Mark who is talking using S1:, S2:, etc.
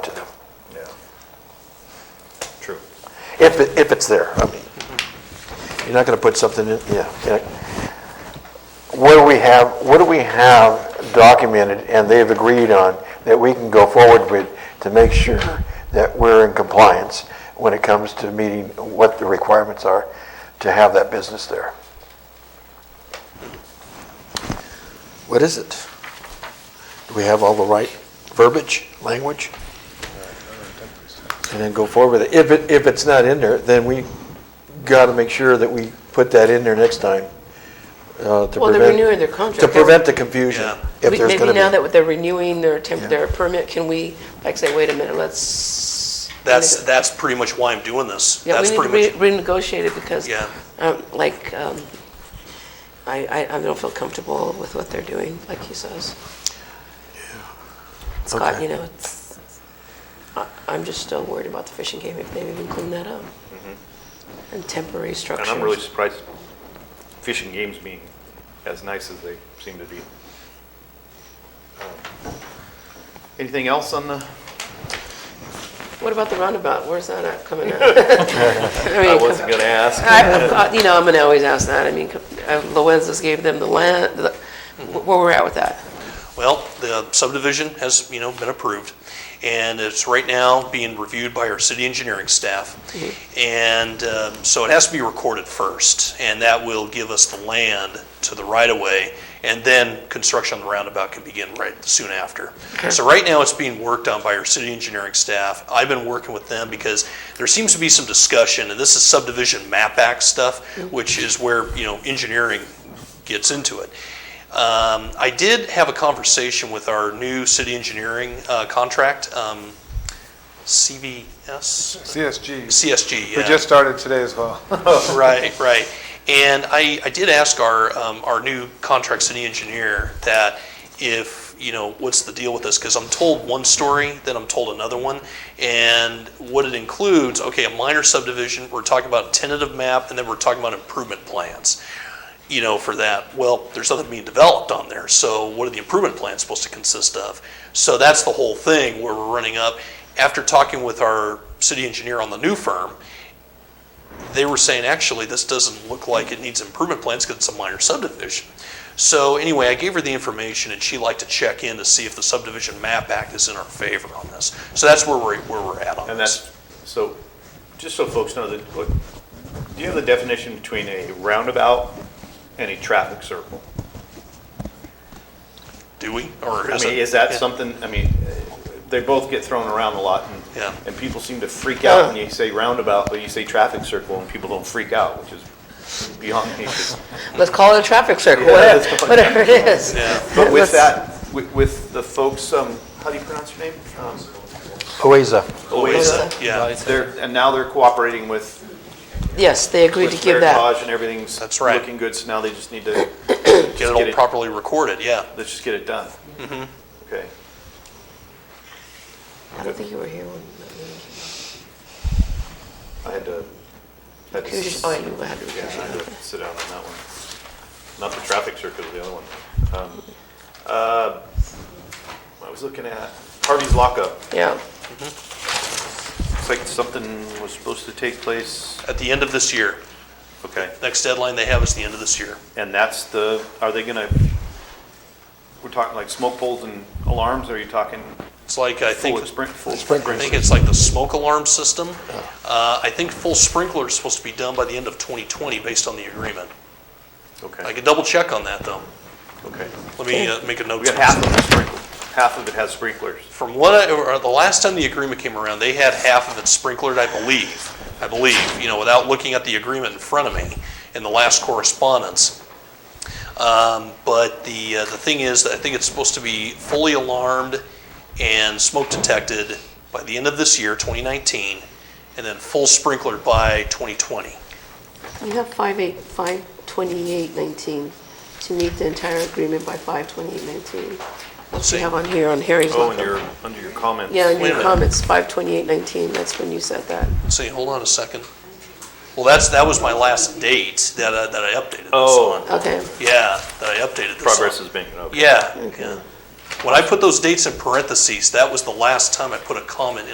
S1: If, it- if it's there, I mean. You're not going to put something in, yeah, yeah. What do we have, what do we have documented and they've agreed on that we can go forward with to make sure that we're in compliance when it comes to meeting what the requirements are to have that business there? What is it? Do we have all the right verbiage, language? And then go forward with it. If it, if it's not in there, then we got to make sure that we put that in there next time uh, to
S2: Well, they're renewing
S1: prevent,
S2: their
S1: to
S2: contract.
S1: prevent the confusion, if
S2: We-
S1: there's going
S2: Maybe now
S1: to
S2: that they're renewing their temp,
S1: Yeah.
S2: their permit, can we, like, say, wait a minute, let's.
S3: That's, that's pretty much why I'm doing this.
S2: Yeah, we
S3: That's
S2: need to
S3: pretty
S2: re-
S3: much,
S2: renegotiate it because,
S3: Yeah.
S2: um, like, um, I, I, I don't feel comfortable with what they're doing, like he says. Scott,
S1: Okay.
S2: you know, it's, I, I'm just still worried about the fishing game, if they've even cleaned that up. And temporary
S4: And
S2: structures.
S4: I'm really surprised fishing games being as nice as they seem to be. Um, Anything else on the,
S2: What about the roundabout? Where's that at coming out? I
S4: I
S2: mean,
S4: wasn't gonna ask.
S2: I- I- You know, I'm gonna always ask that. I mean, uh, Loenzas gave them the land, the- where we're at with that.
S3: well, the subdivision has, you know, been approved, and it's right now being reviewed by our city engineering staff. And um, so it has to be recorded first, and that will give us the land to the right-of-way, and then construction on the roundabout can begin right soon after. So right now, it's being worked on by our city engineering staff. I've been working with them because there seems to be some discussion, and this is subdivision map act stuff, which is where, you know, engineering gets into it. Um, I did have a conversation with our new city engineering uh, contract, um, CVS,
S5: CSG.
S3: CSG.
S5: We
S3: yeah.
S5: just started today as well.
S3: Right, right. And I, I did ask our, um, our new contract city engineer that if, you know, what's the deal with this? Because I'm told one story, then I'm told another one. And what it includes, okay, a minor subdivision, we're talking about tentative map, and then we're talking about improvement plans, you know, for that. Well, there's nothing being developed on there, so what are the improvement plans supposed to consist of? So that's the whole thing where we're running up. After talking with our city engineer on the new firm, they were saying, actually, this doesn't look like it needs improvement plans because it's a minor subdivision. So anyway, I gave her the information and she liked to check in to see if the subdivision map act is in our favor on this. So that's where we're, where we're at on
S4: And
S3: this.
S4: that's, so, just so folks know that, look, do you have the definition between a roundabout and a traffic circle?
S3: Do we? Or
S4: I
S3: is
S4: mean,
S3: it?
S4: is that
S3: yeah.
S4: something, I mean, uh, they both get thrown around a lot and.
S3: Yeah.
S4: And people seem to freak out when you say roundabout, but you say traffic circle and people don't freak out, which is beyond me.
S2: Let's call it a traffic circle,
S4: Yeah,
S2: whatever
S4: let's call it
S2: whatever it is.
S4: But
S2: Let's-
S4: with that, wi- with the folks, um, how do you pronounce your name? Um,
S1: OASA.
S4: Oasis.
S3: Yeah,
S4: They're, and now they're cooperating with,
S2: Yes, they agreed
S4: with
S2: to give that.
S4: Meritage and everything's
S3: That's right.
S4: looking good, so now they just need to,
S3: get it
S4: get
S3: all
S4: it-
S3: properly recorded, yeah.
S4: let's just get it done. Okay.
S2: I don't think you were here when.
S4: I had to, had to
S2: You just- oh, you had to-
S4: Yeah, I had to sit down on that one. Not the traffic circle, the other one. Um, uh, I was looking at Harvey's lockup.
S2: Yeah,
S4: Looks like something was supposed to take place.
S3: At the end of this year,
S4: Okay.
S3: next deadline they have is the end of this year.
S4: And that's the, are they gonna, we're talking like smoke poles and alarms, or are you talking
S3: It's like, I think,
S4: full spring? full-
S3: I think it's like the smoke alarm system. Uh, I think full sprinkler is supposed to be done by the end of 2020 based on the agreement. I
S4: Okay,
S3: could double check on that though.
S4: okay.
S3: Let me uh, make a note.
S4: We got
S3: to myself.
S4: half of it sprinkled, half of it has sprinklers.
S3: From what I, or the last time the agreement came around, they had half of it sprinklered, I believe. I believe, you know, without looking at the agreement in front of me in the last correspondence. Um, But the, uh, the thing is, that I think it's supposed to be fully alarmed and smoke detected by the end of this year, 2019, and then full sprinkler by 2020.
S2: you have five eight, five twenty-eight nineteen, to meet the entire agreement by five twenty-eight nineteen.
S3: Let's
S2: You
S3: see.
S2: have on here, on Harry's.
S4: Oh, and
S2: lockup.
S4: your, under your comments.
S2: Yeah, in
S3: Wait a
S2: your
S3: minute.
S2: comments, five twenty-eight nineteen, that's when you said that.
S3: Let's see, hold on a second. Well, that's, that was my last date that I, that I updated this on.
S4: Oh.
S2: Okay,
S3: Yeah, that I updated this on.
S4: Progress is being, okay.
S3: Yeah, yeah. When I put those dates in parentheses, that was the last time I put a comment in.